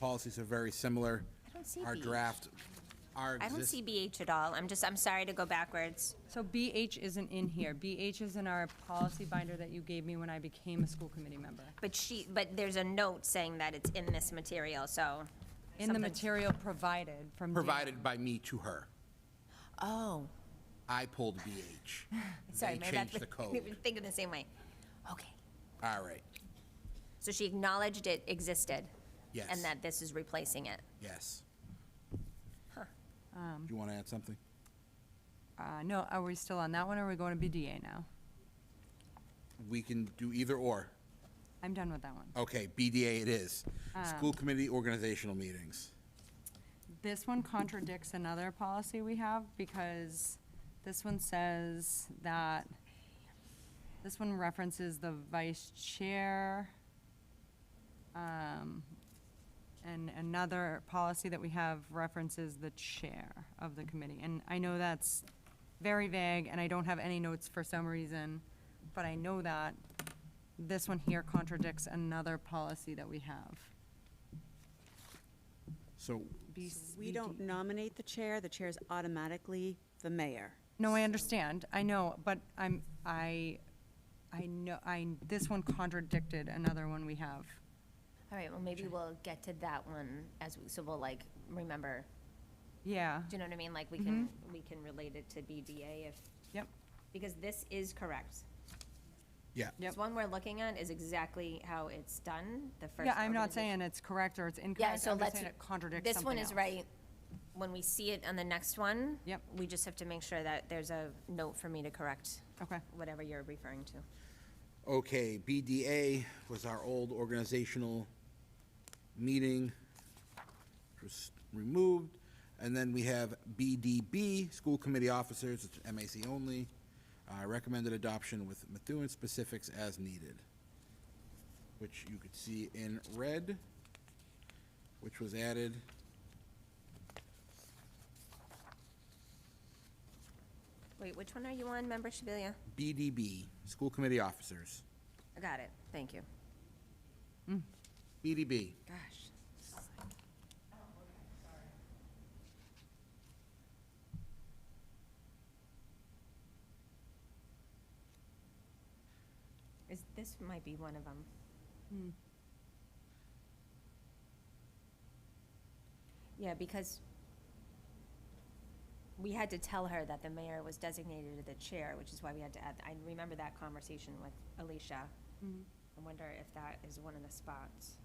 policies are very similar. don't see Our BH. draft, our I don't exist- see BH at all. I'm just, I'm sorry to go backwards. So BH isn't in here. BH is in our policy binder that you gave me when I became a school committee member. But she, but there's a note saying that it's in this material, so. In the something- material provided from. Dan. provided by me to her. Oh, I pulled BH. sorry, They maybe that's. changed the code. Thinking the same way. Okay. All right, So she acknowledged it existed. Yes. And that this is replacing it. yes. Do Um. you want to add something? Uh, no, are we still on that one or are we going to BDA now? We can do either or. I'm done with that one. Okay, BDA it is. Um. School committee organizational meetings. This one contradicts another policy we have because this one says that, this one references the vice chair. um, And another policy that we have references the chair of the committee. And I know that's very vague and I don't have any notes for some reason, but I know that this one here contradicts another policy that we have. So, B- We don't nominate the chair, the chair is automatically the mayor. No, I understand, I know, but I'm, I, I know, I, this one contradicted another one we have. All right, well, maybe we'll get to that one as, we so we'll like, remember, Yeah, do you know what I mean? Like, we can, Mm-hmm. we can relate it to BDA if, yep, because this is correct. yeah. This one we're looking at is exactly how it's done, the first. yeah, I'm not organization. saying it's correct or it's Yeah, incorrect, so I'm just let's. saying it contradicts This one something is else. right. When we see it on the next one. Yep. We just have to make sure that there's a note for me to correct Okay, whatever you're referring to. Okay, BDA was our old organizational meeting, which was removed. And then we have BDB, School Committee Officers, it's MAC only, uh, recommended adoption with Methuen specifics as needed, which you could see in red, which was added. Wait, which one are you on, Member Shabilia? BDB, School Committee Officers. I got it. Thank you. BDB, Gosh. Is, this might be one of them. Yeah, because we had to tell her that the mayor was designated to the chair, which is why we had to add, I remember that conversation with Alicia. I wonder if that is one of the spots.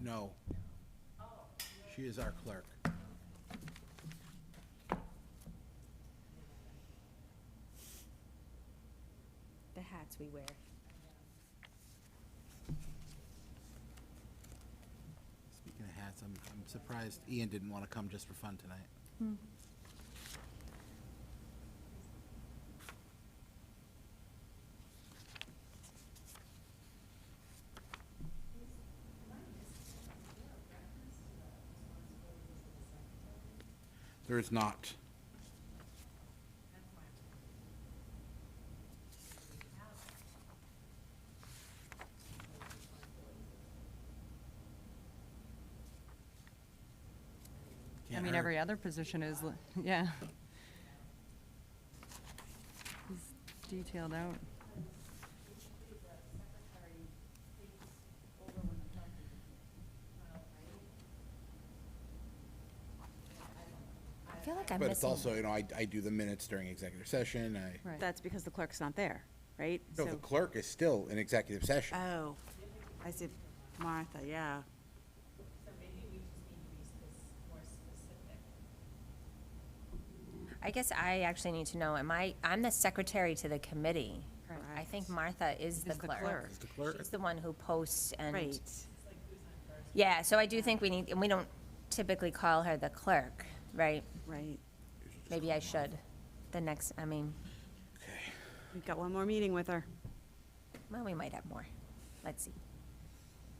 No. She is our clerk. the hats we wear. Speaking of hats, I'm, I'm surprised Ian didn't want to come just for fun tonight. There is not. I Can't mean, hurt. every other position is, li- yeah. It's Detailed out. I feel like I'm But it's missing. also, you know, I, I do the minutes during executive session, I, Right. That's because the clerk's not there, right? no, the So- clerk is still in executive session. Oh, I said Martha, yeah. So maybe we just need to be spec- more specific. I guess I actually need to know, am I, I'm the secretary to the committee. I think Martha is the Is the clerk. clerk. Is the clerk. She's the one who posts and, Right. yeah, so I do think we need, and we don't typically call her the clerk, right? Right. Maybe I should, the next, I mean, We've got one more meeting with her. well, we might have more. Let's see.